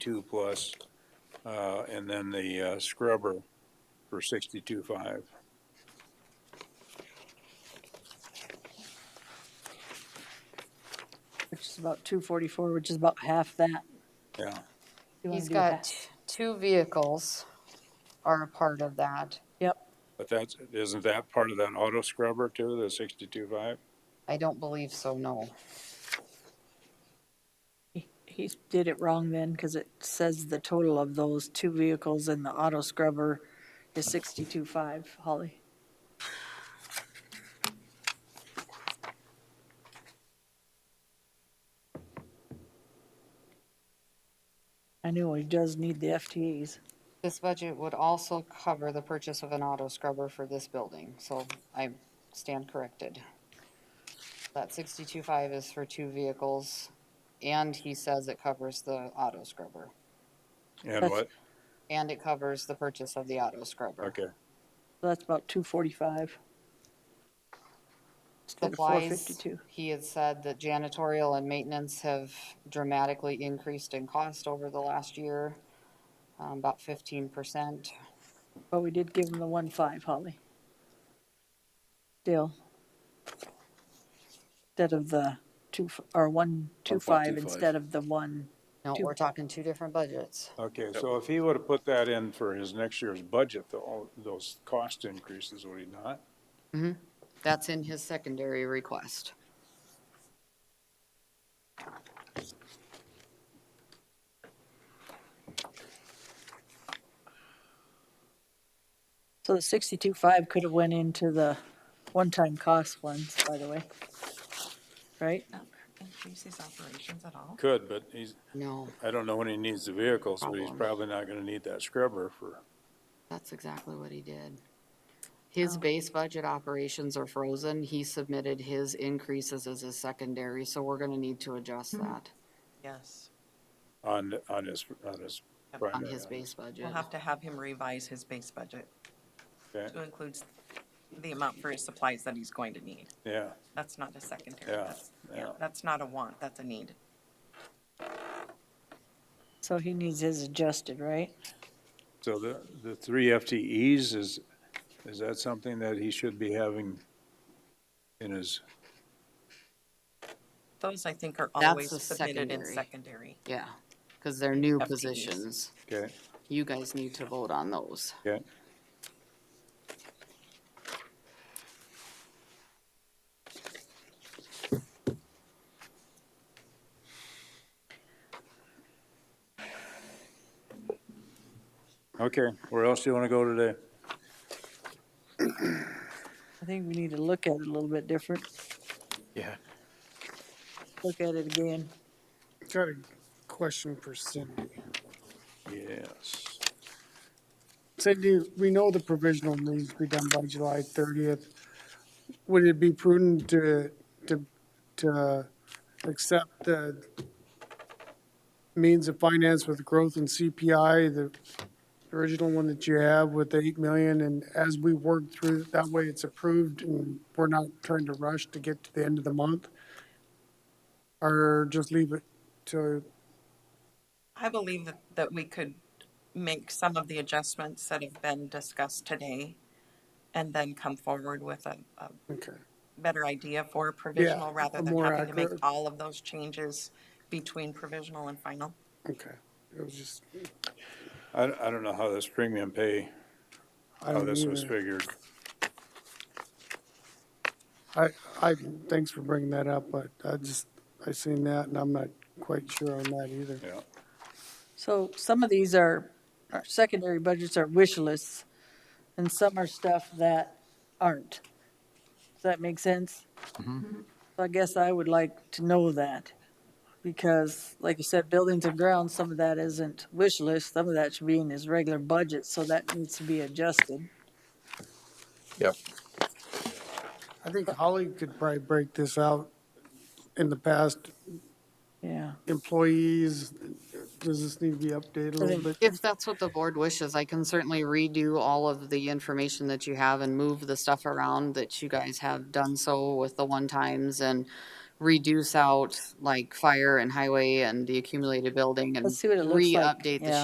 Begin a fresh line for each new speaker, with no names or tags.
two plus, uh, and then the uh, scrubber for sixty-two five.
which is about two forty-four, which is about half that.
Yeah,
You wanna
He's
do
got
half.
t- two vehicles are a part of that.
Yep,
but that's, isn't that part of that auto scrubber too, the sixty-two five?
I don't believe so, no.
he, he did it wrong then, cause it says the total of those two vehicles and the auto scrubber is sixty-two five, Holly. I know he does need the FTEs.
This budget would also cover the purchase of an auto scrubber for this building, so I stand corrected. That sixty-two five is for two vehicles, and he says it covers the auto scrubber,
And what,
and it covers the purchase of the auto scrubber.
okay,
That's about two forty-five. Instead of four
Supplies,
fifty-two.
he had said that janitorial and maintenance have dramatically increased in cost over the last year, um, about fifteen percent.
But we did give him the one five, Holly. Still. Instead of the two, f- or one, two five
1.25.
instead of the one,
No, we're talking two different budgets.
okay, so if he would've put that in for his next year's budget, the, all those cost increases, would he not?
That's in his secondary request.
so the sixty-two five could have went into the one-time cost ones, by the way. Right?
not increase his operations at all?
Could, but he's,
No,
I don't know when he needs the vehicles, but he's
Problem.
probably not gonna need that scrubber for,
that's exactly what he did. His
Oh.
base budget operations are frozen. He submitted his increases as his secondary, so we're gonna need to adjust
Hmm.
that
Yes.
on, on his, on his
Yep.
primary.
on his base budget.
We'll have to have him revise his base budget
Okay,
to include the amount for his supplies that he's going to need.
yeah,
That's not a secondary.
Yeah,
That's-
yeah.
That's not a want, that's a need.
So he needs his adjusted, right?
so the, the three FTEs is, is that something that he should be having in his,
Those, I think, are
That's
always
the
submitted in
secondary.
secondary.
Yeah, cause they're new
FTEs.
positions.
okay,
You guys need to vote on those.
okay? Okay, where else do you want to go today?
I think we need to look at it a little bit different,
Yeah.
look at it again.
Got a question for Cindy.
Yes.
Cindy, we know the provisional needs to be done by July thirtieth. Would it be prudent to, to, to accept the means of finance with growth in CPI, the original one that you have with the eight million, and as we work through, that way it's approved and we're not trying to rush to get to the end of the month? Or just leave it to
I believe that, that we could make some of the adjustments that have been discussed today and then come forward with a, a
okay.
better idea for a provisional rather
a
than
more
having to make
accurate-
all of those changes between provisional and final.
Okay, it was just,
I, I don't know how this premium pay,
I
how
don't
Oh, this was
either.
figured.
I, I, thanks for bringing that up, but I just, I seen that and I'm not quite sure on that either.
Yeah,
So some of these are, our secondary budgets are wish lists, and some are stuff that aren't. Does that make sense? So I guess I would like to know that, because like you said, buildings and grounds, some of that isn't wish list, some of that should be in his regular budget, so that needs to be adjusted.
Yep.
I think Holly could probably break this out in the past,
Yeah,
employees, does this need to be updated a
I
little
think-
bit?
If that's what the board wishes, I can certainly redo all of the information that you have and move the stuff around that you guys have done so with the one times and
reduce out like fire and highway and the accumulated building and
Let's see what it looks like,
re-update the
yeah.